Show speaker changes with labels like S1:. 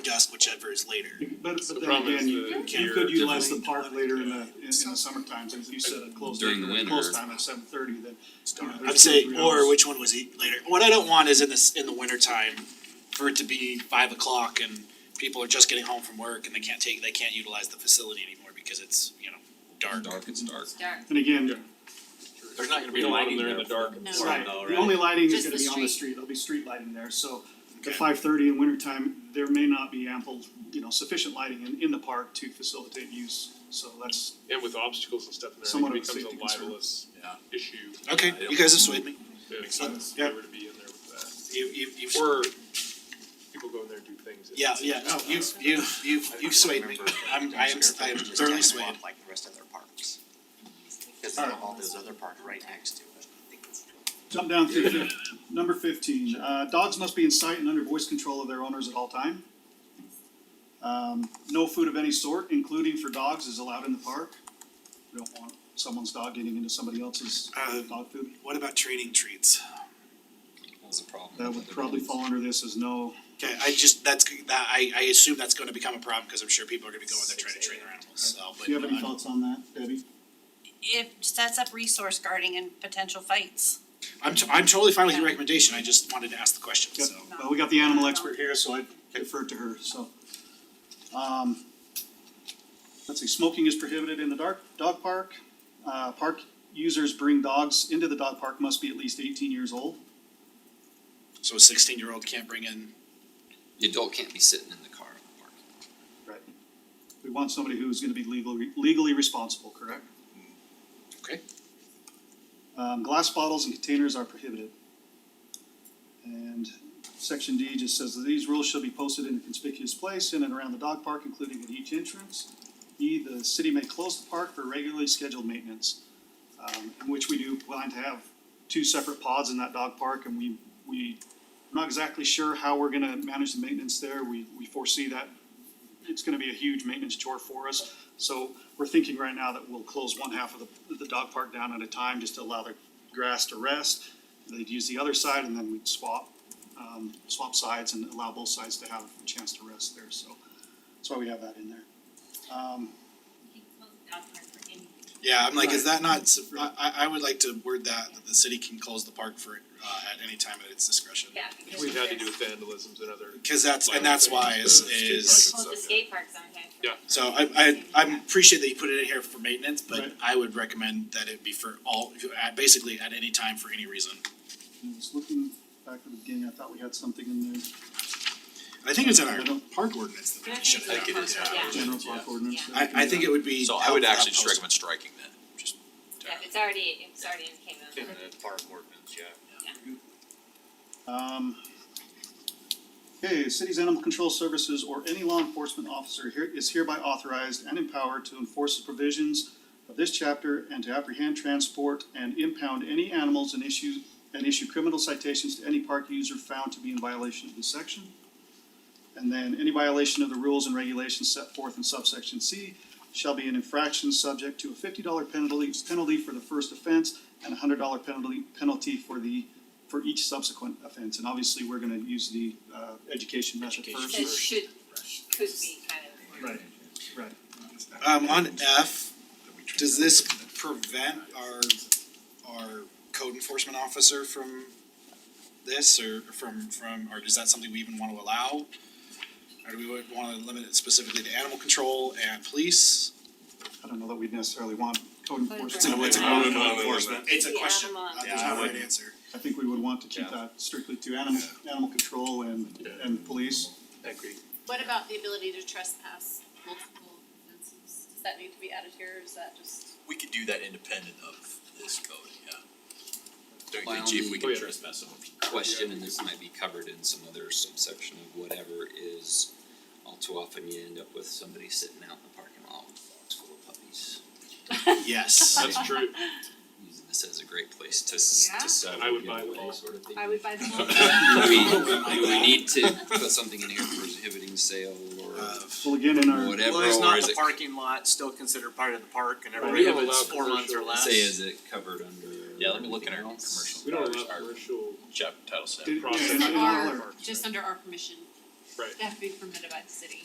S1: last, whichever is later.
S2: But
S3: The
S2: but then
S3: problem is
S2: again, you
S3: the
S2: you
S3: gear
S2: could utilize the
S1: difference.
S2: park later in the in in the summer times, if you set a close
S4: During the
S2: time,
S4: winter.
S2: close time at seven thirty, then. you know,
S1: I'd
S2: there's
S1: say,
S2: three
S1: or
S2: hours.
S1: which one was it later? What I don't want is in this, in the winter time, for it to be five o'clock and people are just getting home from work and they can't take, they can't utilize the facility anymore because it's, you know, dark.
S4: Dark, it's dark.
S5: Dark.
S2: And again,
S1: There's not gonna be
S3: You don't want
S1: lighting
S3: them there
S1: there.
S3: in the dark.
S5: No.
S3: It's
S2: right,
S3: like,
S2: the only lighting is
S5: Just
S2: gonna
S5: the
S2: be on
S5: street.
S2: the street, there'll be street lighting there, so
S1: Okay.
S2: at five thirty in winter time, there may not be ample, you know, sufficient lighting in in the park to facilitate use, so that's.
S3: And with obstacles and stuff in
S2: Somewhat
S3: there,
S2: of a
S3: it becomes
S2: safety
S3: a
S2: concern.
S3: libelous
S4: Yeah.
S3: issue.
S1: Okay, you guys have swayed me.
S3: Yeah. Makes sense,
S2: Yeah.
S3: they were to be in there with
S1: You, you, you've.
S3: that. Or people go in there and do things. that-
S1: Yeah, yeah, no, you, you, you, you swayed me. I'm, I am, I am thoroughly swayed.
S6: Like the rest of their parks. Cause they have all those other parks right next to it.
S2: Jump down through here. number fifteen, uh, dogs must be in sight and under voice control of their owners at all time. Um, no food of any sort, including for dogs, is allowed in the park. We don't want someone's dog getting into somebody else's
S1: Um,
S2: dog food.
S1: What about training treats?
S4: That was a problem.
S2: That would probably fall under this as no,
S1: Okay, I just, that's, that, I, I assume that's gonna become a problem, cause I'm sure people are gonna be going there trying to train their animals, so, but.
S2: do you have any
S1: uh,
S2: thoughts on that, Debbie?
S5: It sets up resource guarding and potential fights.
S1: I'm, t- I'm totally fine with your recommendation, I just wanted to ask the question,
S2: Yep.
S1: so.
S2: Well, we got the animal expert here, so I defer to her, so. Um, let's see, smoking is prohibited in the dark, dog park. Uh, park users bring dogs into the dog park must be at least eighteen years old.
S1: So a sixteen year old can't bring in,
S4: The adult can't be sitting in the car in the park.
S2: Right. We want somebody who's gonna be legally, legally responsible, correct?
S1: Okay.
S2: Um, glass bottles and containers are prohibited. And section D just says that these rules shall be posted in a conspicuous place in and around the dog park, including at each entrance. E, the city may close the park for regularly scheduled maintenance, um, in which we do plan to have two separate pods in that dog park, and we, we, we're not exactly sure how we're gonna manage the maintenance there, we, we foresee that it's gonna be a huge maintenance chore for us. So we're thinking right now that we'll close one half of the, the dog park down at a time, just to allow the grass to rest. They'd use the other side and then we'd swap, um, swap sides and allow both sides to have a chance to rest there, so that's why we have that in there. Um,
S1: yeah, I'm like, is that not, su- I, I, I would like to word that, that the city can close the park for, uh, at any time at its discretion.
S7: Yeah, because
S3: We've had to do
S7: there's-
S3: with vandalisms and other.
S1: Cause that's, and that's why is, is,
S7: Close the skate park sometimes.
S3: Yeah.
S1: so I, I, I appreciate that you put it in here for maintenance, but
S2: Right.
S1: I would recommend that it be for all, at, basically at any time for any reason.
S2: I was looking back at the beginning, I thought we had something in there,
S1: I think it's in our
S2: I don't-
S1: park ordinance that
S7: Yeah,
S1: we
S7: I think
S1: should
S7: so.
S1: have.
S7: Like it is, yeah.
S2: general park ordinance.
S7: Yeah.
S1: I, I think it would be.
S8: So I
S1: helpful
S8: would
S1: to
S8: actually just
S1: post-
S8: recommend striking that,
S4: uh,
S8: just.
S7: Yeah, if it's already, if it's already in K
S8: In
S7: mode.
S8: the park ordinance, yeah.
S2: Um, okay, city's animal control services or any law enforcement officer here is hereby authorized and empowered to enforce the provisions of this chapter and to apprehend, transport, and impound any animals and issue, and issue criminal citations to any park user found to be in violation of this section. And then any violation of the rules and regulations set forth in subsection C shall be an infraction subject to a fifty dollar penalty, penalty for the first offense and a hundred dollar penalty, penalty for the, for each subsequent offense. And obviously, we're gonna use the, uh, education method first.
S7: So should, could be kind of,
S2: Right, right.
S1: Um, on F, does this prevent our, our code enforcement officer from this or from, from, or is that something we even wanna allow? Or do we wanna limit it specifically to animal control and police?
S2: I don't know that we'd necessarily want code
S1: It's a,
S2: enforcement.
S1: it's a.
S3: I wouldn't want to limit it.
S1: It's a
S7: Yeah,
S1: question,
S7: I'm on.
S1: Uh, there's
S8: Yeah, I
S1: no right
S8: wouldn't.
S1: answer.
S2: I think we would want to keep
S8: Yeah.
S2: that strictly to animal, animal control and, and police.
S3: I agree.
S9: What about the ability to trespass multiple fences? Does that need to be added here, or is that just?
S8: We could do that independent of this code, yeah. Don't you
S4: My
S8: think, chief,
S4: only-
S8: we
S3: Oh,
S8: can
S3: yeah.
S8: trespass someone?
S4: Question, and this might be covered in some other subsection of whatever is, all too often you end up with somebody sitting out in the parking lot with a box full of puppies.
S1: Yes,
S3: That's true.
S4: Using this as a great place to s-
S5: Yeah.
S4: to settle,
S3: I would
S4: you
S3: buy
S4: know,
S3: them
S4: any
S3: all.
S4: sort of thing.
S9: I would buy them all.
S4: Do we, do we need to put something in here prohibiting sale or
S1: of,
S2: Well, again, in our.
S4: whatever,
S6: Well, it's
S4: or
S6: not
S4: is
S6: the
S4: it,
S6: parking lot, still considered part of the park and
S3: Right, we
S6: everybody,
S3: have
S6: if it's
S3: allowed
S6: four months or
S3: commercial-
S6: less.
S4: say is it covered under?
S8: Yeah, let me look in our
S4: anything else?
S8: commercial.
S3: We don't
S8: Ours
S3: allow
S8: are
S3: commercial,
S8: Chapter title seven.
S2: Did-
S3: Process.
S2: in our-
S9: Just under our permission.
S3: Right.
S9: have to be permitted by the city.